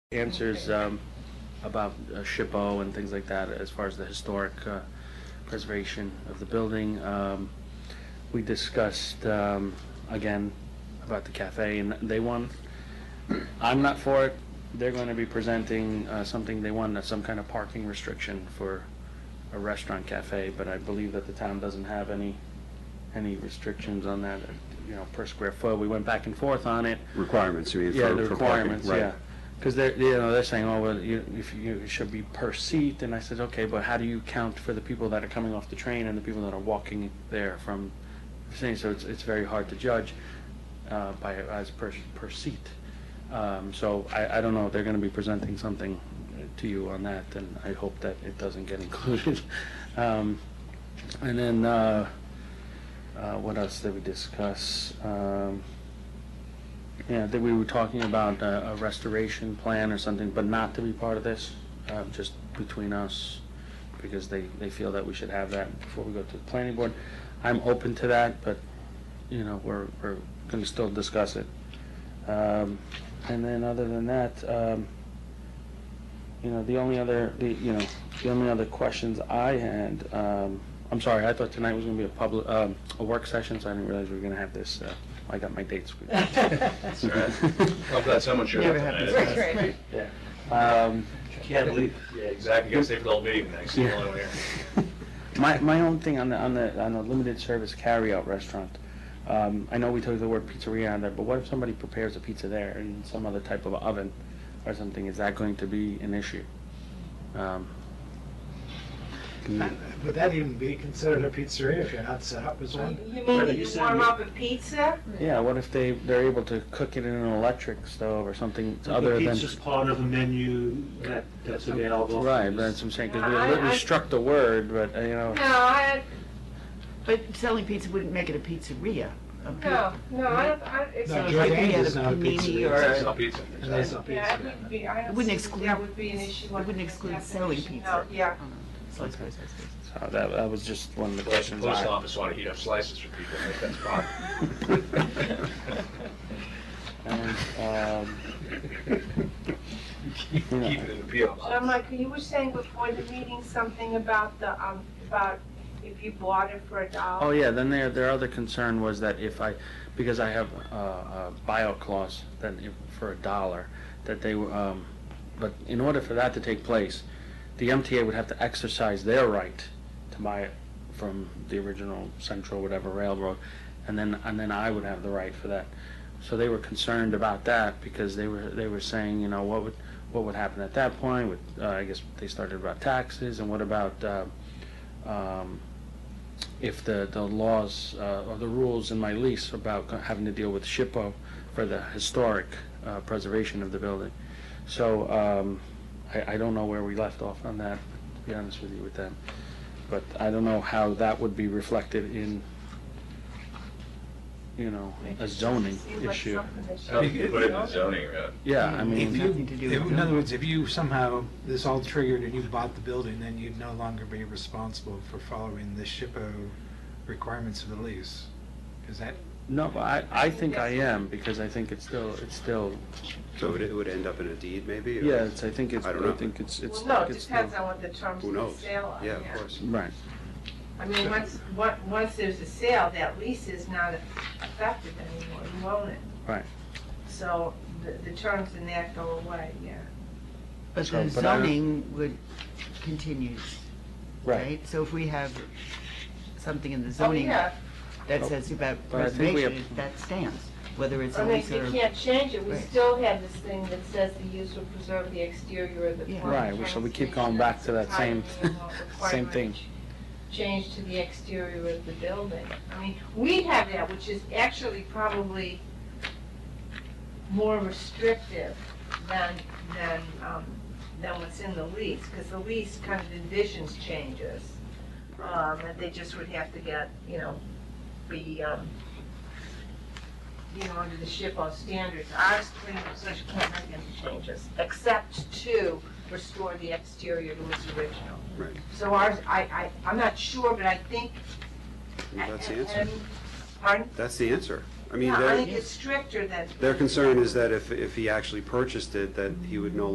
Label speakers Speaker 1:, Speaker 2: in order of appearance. Speaker 1: answers um, about uh, SHPO and things like that, as far as the historic uh, preservation of the building. Um, We discussed, um, again, about the cafe, and they won. I'm not for it. They're going to be presenting uh, something, they won, uh, some kind of parking restriction for a restaurant cafe, but I believe that the town doesn't have any, any restrictions on that, you know, per square foot. We went back and forth on it.
Speaker 2: Requirements, you mean?
Speaker 1: Yeah,
Speaker 2: for-
Speaker 1: the
Speaker 2: for parking,
Speaker 1: requirements,
Speaker 2: right.
Speaker 1: yeah. Because they're, you know, they're saying, oh, well, you, if you, it should be per seat, and I said, okay, but how do you count for the people that are coming off the train and the people that are walking there from, saying, so it's, it's very hard to judge, uh, by, as per, per seat. Um, so I, I don't know, they're gonna be presenting something to you on that, and I hope that it doesn't get included. Um, and then, uh, uh, what else did we discuss? Um, yeah, that we were talking about uh, a restoration plan or something, but not to be part of this, uh, just between us, because they, they feel that we should have that before we go to the planning board. I'm open to that, but, you know, we're, we're going to still discuss it. Um, And then, other than that, um, you know, the only other, the, you know, the only other questions I had, um, I'm sorry, I thought tonight was going to be a public, um, a work session, so I didn't realize we were going to have this, uh, I got my dates.
Speaker 3: I'm glad someone showed up.
Speaker 4: Right,
Speaker 3: tonight.
Speaker 4: right.
Speaker 1: Yeah. Um,
Speaker 3: Can't leave. Yeah, exactly, gotta stay for the whole meeting next, you're the only one here.
Speaker 1: My, my own thing on the, on the, on the limited service carryout restaurant, um, I know we took the word pizzeria on there, but what if somebody prepares a pizza there in some other type of oven or something, is that going to be an issue? Um,
Speaker 5: Would that even be considered a pizzeria if you're not set up as one?
Speaker 4: You mean that you warm up a pizza?
Speaker 1: Yeah, what if they, they're able to cook it in an electric stove or something other
Speaker 6: The
Speaker 1: than?
Speaker 6: pizza's part of a menu that, that's available.
Speaker 1: Right, that's what I'm saying, because we
Speaker 4: I-
Speaker 1: literally
Speaker 4: I-
Speaker 1: struck the word, but, uh, you know,
Speaker 4: No, I,
Speaker 7: But selling pizza wouldn't make it a pizzeria. A pi-
Speaker 4: no, no, I, don't- I, it's,
Speaker 5: No,
Speaker 4: yeah,
Speaker 7: George-
Speaker 5: Jordan
Speaker 7: Yeah,
Speaker 5: is
Speaker 7: the
Speaker 5: not a
Speaker 7: panini
Speaker 5: pizzeria.
Speaker 7: or-
Speaker 3: It's not pizza.
Speaker 5: And that's not
Speaker 4: it
Speaker 5: pizza.
Speaker 4: wouldn't be, I don't.
Speaker 7: Wouldn't
Speaker 4: see-
Speaker 7: exclude-
Speaker 4: That would be an issue.
Speaker 7: it wouldn't
Speaker 4: under
Speaker 7: exclude
Speaker 4: this
Speaker 7: selling
Speaker 4: definition.
Speaker 7: pizza.
Speaker 4: No, yeah.
Speaker 7: Slice, slice, slice, slice.
Speaker 1: so Uh, that, that was just one of the
Speaker 3: Plus, the
Speaker 1: questions.
Speaker 3: post
Speaker 1: I-
Speaker 3: office wanna heat up slices for people, I think that's
Speaker 1: And, um,
Speaker 3: Keep keep it in the P.O. box.
Speaker 4: So, Michael, you were saying before the meeting something about the, um, about if you bought it for a dollar.
Speaker 1: Oh, yeah, then their, their other concern was that if I, because I have uh, a bio clause, that if, for a dollar, that they, were, um, but in order for that to take place, the MTA would have to exercise their right to buy it from the original Central, whatever railroad, and then, and then I would have the right for that. So they were concerned about that, because they were, they were saying, you know, what would, what would happen at that point with, uh, I guess they started about taxes, and what about, uh, um, if the, the laws uh, or the rules in my lease about co- having to deal with SHPO for the historic uh, preservation of the building. So um, I, I don't know where we left off on that, to be honest with you with them. But I don't know how that would be reflected in, you know, a zoning
Speaker 4: Seems like
Speaker 1: issue.
Speaker 4: something that should
Speaker 3: I think
Speaker 4: be
Speaker 3: you put it in the
Speaker 4: zoned.
Speaker 3: zoning, uh,
Speaker 1: Yeah, I
Speaker 7: It's
Speaker 1: mean,
Speaker 7: nothing to do
Speaker 5: If-
Speaker 7: with
Speaker 5: In other
Speaker 7: them.
Speaker 5: words, if you somehow, this all triggered and you bought the building, then you'd no longer be responsible for following the SHPO requirements of the lease. Is that,
Speaker 1: no, but I, I think I am, because I think it's still, it's still,
Speaker 2: So it would- it would end up in a deed, maybe? or-
Speaker 1: yeah, it's, I think it's,
Speaker 2: I don't know.
Speaker 1: I think it's, it's.
Speaker 4: Well, no, it
Speaker 1: it's
Speaker 4: depends
Speaker 1: still-
Speaker 4: on what the terms
Speaker 2: Who
Speaker 4: of the
Speaker 2: knows?
Speaker 4: sale are.
Speaker 2: Yeah, of course.
Speaker 1: Right.
Speaker 4: I mean, once, on- once there's a sale, that lease is not effective anymore, you own it.
Speaker 1: Right.
Speaker 4: So the, the terms in that go away, yeah.
Speaker 7: But
Speaker 1: So,
Speaker 7: the
Speaker 1: but I don't-
Speaker 7: zoning would continue, right? So if we have something in the
Speaker 4: Oh,
Speaker 7: zoning
Speaker 4: yeah,
Speaker 7: that says about
Speaker 1: But I think we have-
Speaker 7: preservation, that stands, whether it's a
Speaker 4: I mean,
Speaker 7: lease
Speaker 4: you
Speaker 7: or.
Speaker 4: can't change it, we
Speaker 7: Right.
Speaker 4: still have this thing that says the use will preserve the exterior of the
Speaker 7: Yeah.
Speaker 4: plant.
Speaker 1: Right, we- so we keep going back to that same- same thing.
Speaker 4: Change to the exterior of the building. I mean, we have that, which is actually probably more restrictive than, than, um, than what's in the lease, because the lease kind of envisions changes. Um, that they just would have to get, you know, be, um, you know, under the SHPO standards, ours pretty much can't make any changes, except to restore the exterior to its original.
Speaker 2: Right.
Speaker 4: So ours, I, I, I'm not sure, but I think.
Speaker 2: Well, That's the answer.
Speaker 4: and- Pardon?
Speaker 2: That's the answer. I mean,
Speaker 4: Yeah, I
Speaker 2: their,
Speaker 4: think it's stricter than.
Speaker 2: their concern is that if, if he actually purchased it, that he would no